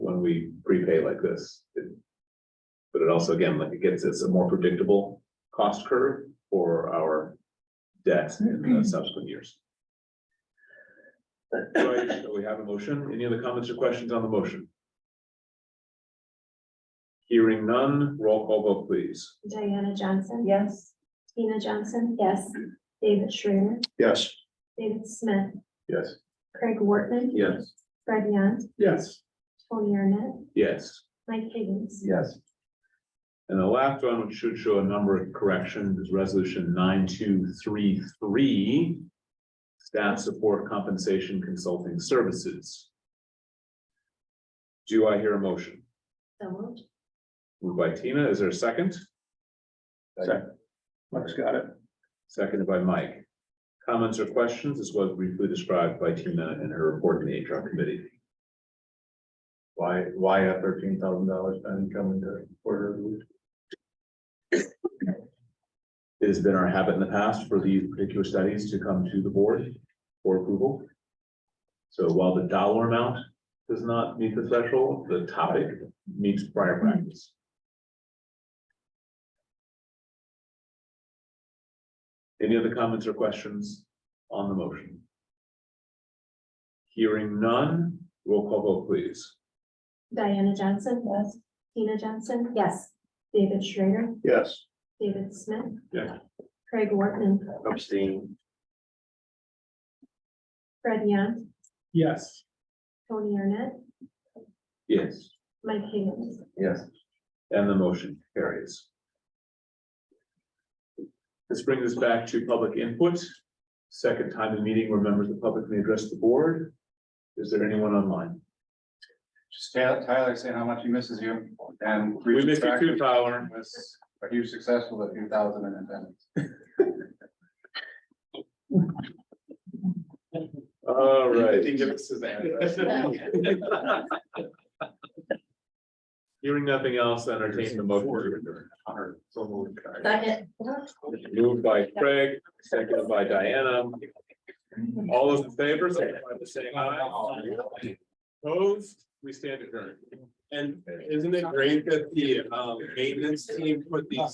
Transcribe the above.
when we prepay like this. It- But it also, again, like it gets us a more predictable cost curve for our debt in the subsequent years. So I- so we have a motion. Any other comments or questions on the motion? Hearing none, roll call vote, please. Diana Johnson. Yes. Tina Johnson. Yes. David Schrader. Yes. David Smith. Yes. Craig Wortman. Yes. Fred Yant. Yes. Tony Arnett. Yes. Mike Higgins. Yes. And the last one, which should show a number of corrections, is resolution nine, two, three, three. Staff support compensation consulting services. Do I hear a motion? So moved. Moved by Tina, is there a second? Second. Mike's got it. Seconded by Mike. Comments or questions, as was briefly described by Tina in her report in the HR committee. Why, why a thirteen thousand dollars spend coming to order? It has been our habit in the past for these particular studies to come to the board for approval. So while the dollar amount does not meet the threshold, the topic meets prior practice. Any other comments or questions on the motion? Hearing none, roll call vote please. Diana Johnson. Yes. Tina Johnson. Yes. David Schrader. Yes. David Smith. Yeah. Craig Wortman. Abstain. Fred Yant. Yes. Tony Arnett. Yes. Mike Higgins. Yes. And the motion carries. This brings us back to public input. Second time in meeting where members of the public may address the board. Is there anyone online? Just Tyler, Tyler saying how much he misses you and. We miss you too, Tyler. Was a huge successful with a few thousand in attendance. All right. Hearing nothing else, entertain the motion. to adjourn. Second. Moved by Craig, seconded by Diana. All those in favor, signify by saying aye. Opposed, we stand adjourned. uh, And isn't it great that the um maintenance team put these